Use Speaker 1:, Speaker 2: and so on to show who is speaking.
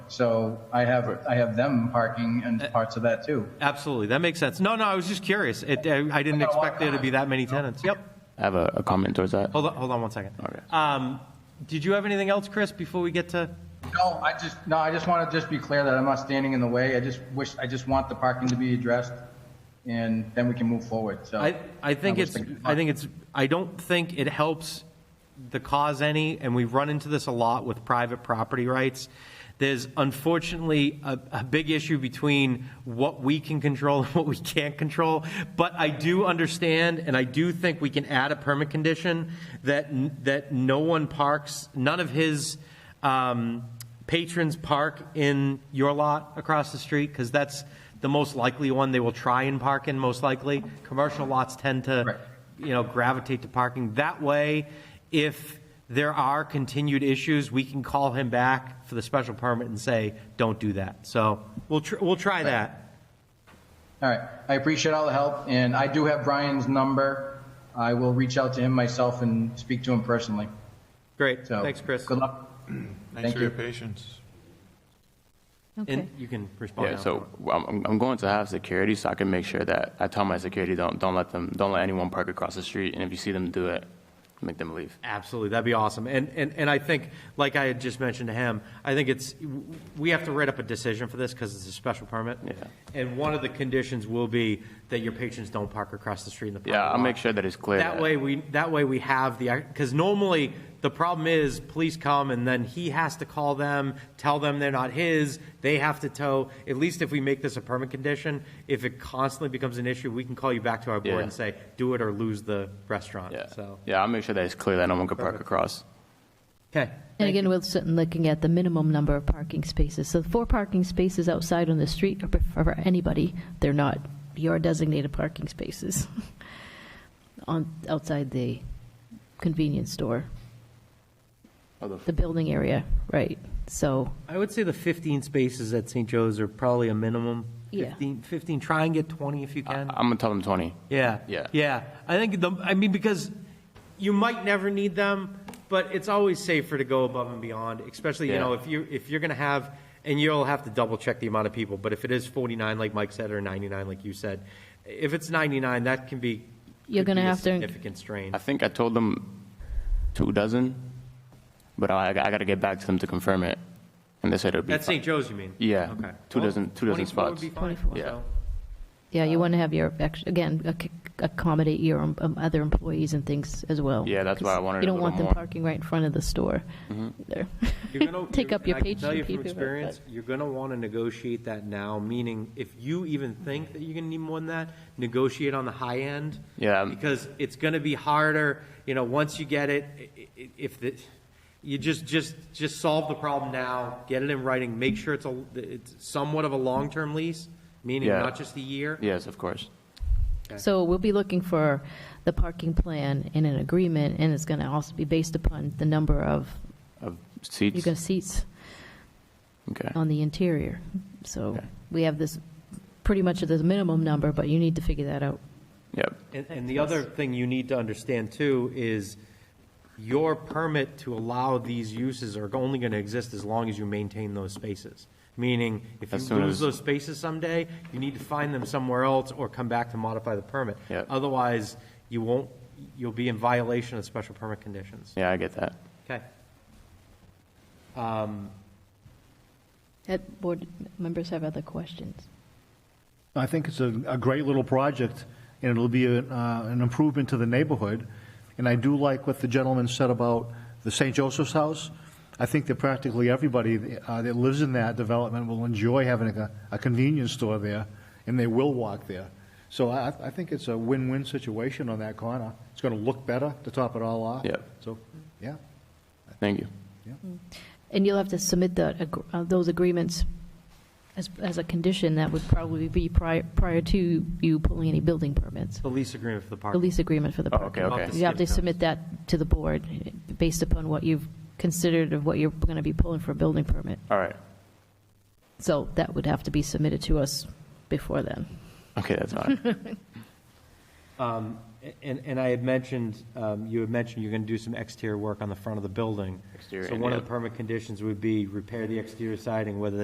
Speaker 1: So I have, I have them parking in parts of that too.
Speaker 2: Absolutely, that makes sense. No, no, I was just curious. It, I I didn't
Speaker 1: I got a lot
Speaker 2: expect there to be that many tenants. Yep.
Speaker 3: I have a, a comment towards that.
Speaker 2: Hold on, hold on one second.
Speaker 3: Okay.
Speaker 2: Um, Did you have anything else, Chris, before we get to?
Speaker 1: No, I just, no, I just want to just be clear that I'm not standing in the way. I just wish, I just want the parking to be addressed and then we can move forward, so.
Speaker 2: I, I think
Speaker 1: was
Speaker 2: it's,
Speaker 1: thinking-
Speaker 2: I think it's, I don't think it helps the cause any, and we run into this a lot with private property rights. There's unfortunately a, a big issue between what we can control and what we can't control. But I do understand, and I do think we can add a permit condition that, n- that no one parks, none of his, um, patrons park in your lot across the street, because that's the most likely one they will try and park in, most likely. Commercial lots tend to,
Speaker 1: Right.
Speaker 2: you know, gravitate to parking. That way, if there are continued issues, we can call him back for the special permit and say, don't do that. So we'll, tr- we'll try that.
Speaker 1: All right, I appreciate all the help and I do have Brian's number. I will reach out to him myself and speak to him personally,
Speaker 2: Great,
Speaker 1: so.
Speaker 2: thanks, Chris.
Speaker 1: Good luck.
Speaker 4: Thanks
Speaker 1: Thank
Speaker 4: for your
Speaker 1: you.
Speaker 4: patience.
Speaker 2: And
Speaker 5: Okay.
Speaker 2: you can respond
Speaker 3: Yeah,
Speaker 2: now.
Speaker 3: so I'm- I'm, I'm going to have security so I can make sure that I tell my security, don't, don't let them, don't let anyone park across the street. And if you see them do it, make them leave.
Speaker 2: Absolutely, that'd be awesome. And, and, and I think, like I had just mentioned to him, I think it's, we have to write up a decision for this because it's a special permit.
Speaker 3: Yeah.
Speaker 2: And one of the conditions will be that your patrons don't park across the street in the parking
Speaker 3: Yeah, I'll
Speaker 2: lot.
Speaker 3: make sure that it's clear.
Speaker 2: That way we, that way we have the, because normally the problem is police come and then he has to call them, tell them they're not his, they have to tow. At least if we make this a permit condition, if it constantly becomes an issue, we can call you back to our board
Speaker 3: Yeah.
Speaker 2: and say, do it or lose the restaurant,
Speaker 3: Yeah,
Speaker 2: so.
Speaker 3: yeah, I'll make sure that it's clear that no one could park across.
Speaker 2: Okay.
Speaker 5: And
Speaker 2: Thank you.
Speaker 5: again, we're sitting looking at the minimum number of parking spaces. So four parking spaces outside on the street are prefer- for anybody. They're not your designated parking spaces on, outside the convenience store, the building area, right? So,
Speaker 2: I would say the 15 spaces at St. Joe's are probably a minimum.
Speaker 5: Yeah.
Speaker 2: 15, 15, try and get 20 if you can.
Speaker 3: I'm gonna tell them twenty.
Speaker 2: Yeah.
Speaker 3: Yeah.
Speaker 2: Yeah. I think the, I mean, because you might never need them, but it's always safer to go above and beyond, especially, you
Speaker 3: Yeah.
Speaker 2: know, if you, if you're going to have, and you'll have to double check the amount of people, but if it is 49, like Mike said, or 99, like you said, if it's 99, that can be.
Speaker 5: You're
Speaker 2: could
Speaker 5: gonna
Speaker 2: be a
Speaker 5: have to-
Speaker 2: Significant strain.
Speaker 3: I think I told them two dozen, but I, I gotta get back to them to confirm it. And they said it'd be.
Speaker 2: At
Speaker 3: fine.
Speaker 2: St. Joe's, you mean?
Speaker 3: Yeah.
Speaker 2: Okay.
Speaker 3: Two
Speaker 2: Well,
Speaker 3: dozen- two dozen
Speaker 2: 24 would
Speaker 3: spots.
Speaker 2: be fine.
Speaker 5: 24.
Speaker 3: Yeah.
Speaker 2: So-
Speaker 5: yeah,
Speaker 3: Uh,
Speaker 5: you want to have your, ex- again, ac- accommodate your um, other employees and things as well.
Speaker 3: Yeah, that's why I
Speaker 5: 'Cause
Speaker 3: wanted
Speaker 5: You
Speaker 3: a
Speaker 5: don't
Speaker 3: little
Speaker 5: want them
Speaker 3: more. Mm-hmm.
Speaker 5: parking right in front of the store. There.
Speaker 2: You're gonna-
Speaker 5: Take
Speaker 2: you're-
Speaker 5: up your
Speaker 2: and I can
Speaker 5: patron.
Speaker 2: Tell you
Speaker 5: people,
Speaker 2: from
Speaker 5: but-
Speaker 2: experience, you're gonna wanna negotiate that now, meaning if you even think that you're gonna need more than that, negotiate on the high end.
Speaker 3: Yeah.
Speaker 2: Because it's gonna be harder, you know, once you get it, i- i- if the, you just, just, just solve the problem now, get it in writing, make sure it's a, it's somewhat of a long-term lease, meaning
Speaker 3: Yeah.
Speaker 2: not just a year.
Speaker 3: Yes, of course.
Speaker 5: So we'll be looking for the parking plan in an agreement, and it's going to also be based upon the number of,
Speaker 3: Of
Speaker 5: you're
Speaker 3: seats.
Speaker 5: going to seats
Speaker 3: Okay.
Speaker 5: on the interior. So
Speaker 3: Okay.
Speaker 5: we have this, pretty much the minimum number, but you need to figure that out.
Speaker 3: Yep.
Speaker 2: And, and the other thing you need to understand too is your permit to allow these uses are only going to exist as long as you maintain those spaces. Meaning, if
Speaker 3: As
Speaker 2: you
Speaker 3: soon
Speaker 2: lose
Speaker 3: as-
Speaker 2: those spaces someday, you need to find them somewhere else or come back to modify the permit.
Speaker 3: Yeah.
Speaker 2: Otherwise, you won't, you'll be in violation of special permit conditions.
Speaker 3: Yeah, I get that.
Speaker 2: Okay.
Speaker 5: Had board members have other questions?
Speaker 6: I think it's a, a great little project, and it'll be a, uh, an improvement to the neighborhood. And I do like what the gentleman said about the St. Joseph's House. I think that practically everybody uh, that lives in that development will enjoy having a, a convenience store there, and they will walk there. So I, I think it's a win-win situation on that corner. It's going to look better to top it all off.
Speaker 3: Yep.
Speaker 6: So, yeah.
Speaker 3: Thank you.
Speaker 5: And you'll have to submit the, ag- uh, those agreements as, as a condition that would probably be prior, prior to you pulling any building permits,
Speaker 2: The lease agreement for the park.
Speaker 5: the lease agreement for the
Speaker 3: Oh,
Speaker 5: parking.
Speaker 3: okay, okay.
Speaker 5: You have to submit that to the board based upon what you've considered of what you're going to be pulling for a building permit.
Speaker 3: All right.
Speaker 5: So that would have to be submitted to us before then.
Speaker 3: Okay, that's fine.
Speaker 2: Um, And, and I had mentioned, um, you had mentioned you're going to do some exterior work on the front of the building.
Speaker 3: Exterior,
Speaker 2: So one of
Speaker 3: yeah.
Speaker 2: the permit conditions would be repair the exterior siding, whether